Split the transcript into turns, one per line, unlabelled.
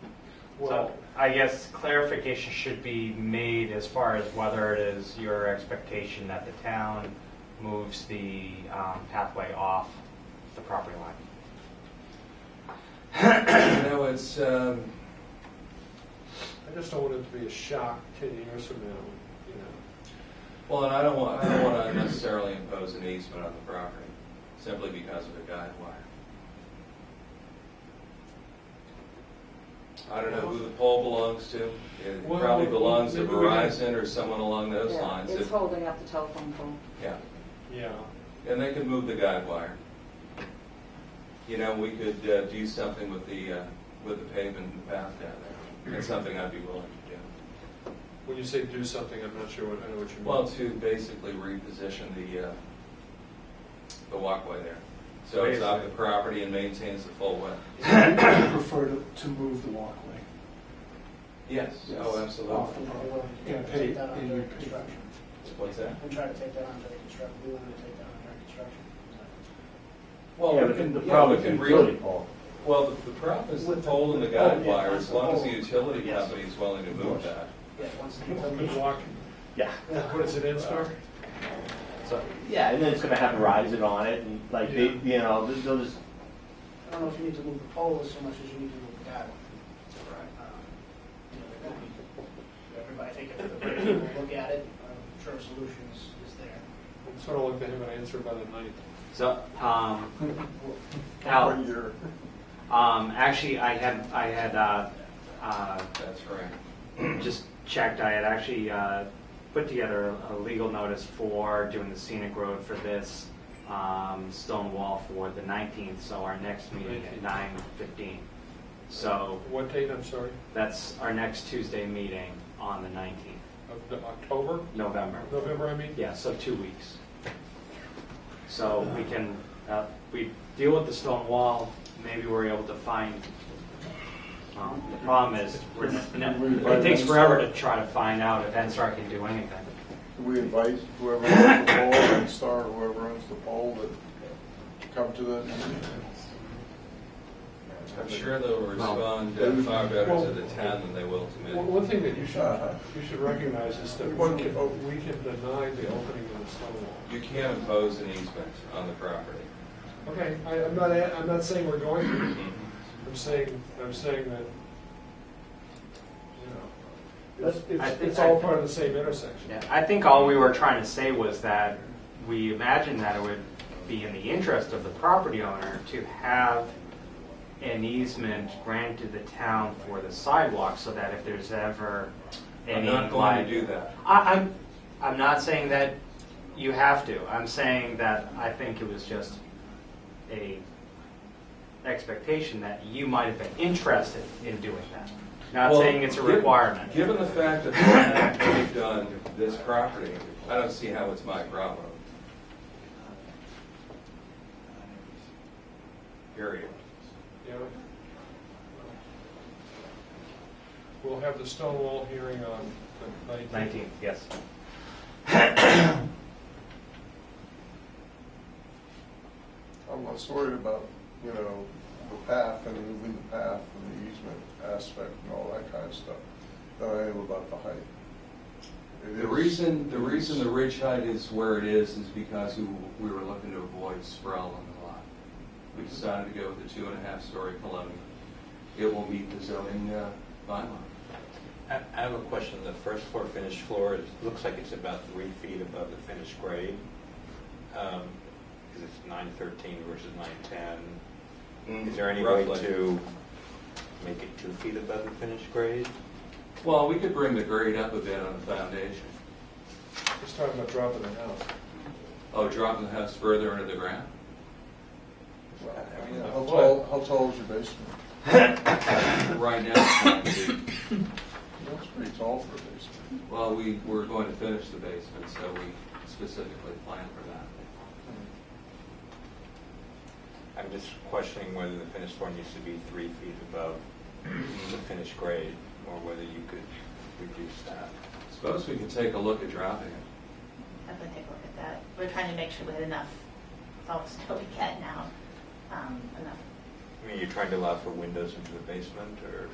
So
Well,
I guess clarification should be made as far as whether it is your expectation that the town moves the um, pathway off the property line.
You know, it's, um,
I just don't want it to be a shock ten years from now, you know.
well, and I don't want, I don't want to necessarily impose an easement on the property simply because of a guide wire. I don't know who the pole belongs to. It
Well,
probably belongs to
maybe we can-
Verizon or someone along those
Yeah,
lines.
It's
If-
holding up the telephone pole.
Yeah.
Yeah.
And they could move the guide wire. You know, we could uh, do something with the, uh, with the pavement and the path down there. That's something I'd be willing to do.
When you say do something, I'm not sure what, I know what you mean.
Well, to basically reposition the, uh, the walkway there. So it's off the property and maintains the full width.
I prefer to, to move the walkway.
Yes, oh,
Off the
absolutely.
roadway.
Yeah,
And
take
pay-
that under
and you pay-
construction.
What's that?
I'm trying to take that under construction, we want to take that under construction.
Well,
Yeah,
we
but
can-
the
yeah,
problem
we
is
can re-
utility pole.
Well, the- the problem is the oh,
With the-
pole and the
oh,
guide
yeah,
wire,
that's
as
the
long as
pole.
the utility
Yes.
company is willing to move
course.
that.
Yeah, once the
People
utility-
can walk,
Yeah.
what is it, Instar?
So,
Yeah, and then it's gonna have Verizon on it, and like, they,
Yeah.
you know, they'll- they'll just,
I don't know if you need to move the pole as much as you need to move the guide.
right.
Um, you know, they're gonna be- Everybody, I think if the person will look at it, I'm sure a solution is, is there.
I'm sort of looking to have an answer by the ninth.
So, um, Al, um, actually, I had, I had, uh, uh,
That's right.
just checked, I had actually, uh, put together a legal notice for doing the scenic road for this, um, stone wall for the nineteenth, so our next meeting at
19th.
nine fifteen. So,
What date, I'm sorry,
that's our next Tuesday meeting on the nineteenth,
of the October,
November.
November, I mean?
Yeah, so two weeks. So we can, uh, we deal with the stone wall, maybe we're able to find, um, the problem is, we're- it takes forever to try to find out if NSTAR can do anything.
We advise whoever owns the pole, and Star, whoever owns the pole, that to come to the,
I'm sure they'll respond uh, far better to the town than they will to
One
me.
one thing that you should, you should recognize is that we can, we can deny the opening of the stone wall.
You can't impose an easement on the property.
Okay, I, I'm not, a- I'm not saying we're going to,
Mm-hmm.
I'm saying, I'm saying that, you know, it's,
I
it's,
think-
it's all part of the same intersection.
Yeah, I think all we were trying to say was that we imagined that it would be in the interest of the property owner to have an easement granted the town for the sidewalk so that if there's ever
I'm
any
not going
like-
to do that.
I, I'm, I'm not saying that you have to. I'm saying that I think it was just a expectation that you might have been interested in doing that. Not
Well,
saying it's a
given-
requirement.
Given the fact that they have moved on this property, I don't see how it's my problem.
Uh,
Period.
Yeah. We'll have the stone wall hearing on the nineteenth.
Nineteen, yes.
I'm less worried about, you know, the path and moving the path and the easement aspect and all that kind of stuff, than I am about the height. It
The
is-
reason, the reason the ridge height is where it is is because we we were looking to avoid sprawl on the lot. We decided to go with the two and a half story colonial. It will meet the zoning uh, bylaw.
I I have a question. The first floor finished floor is, looks like it's about three feet above the finished grade. Because it's nine thirteen versus nine ten. Is there any way
Roughly.
to make it two feet above the finished grade?
Well, we could bring the grade up a bit on the foundation.
Just talking about dropping the house.
Oh, dropping the house further into the ground?
Well, I mean, How tall, how tall is your basement?
Right now, it's not gonna be-
That's pretty tall for a basement.
well, we were going to finish the basement, so we specifically planned for that.
I'm just questioning whether the finished floor needs to be three feet above the finished grade, or whether you could reduce that.
Suppose we could take a look at dropping it.
I'm gonna take a look at that. We're trying to make sure we had enough, with all the snow we get now, um, enough
I mean, you're trying to allow for windows into the basement, or?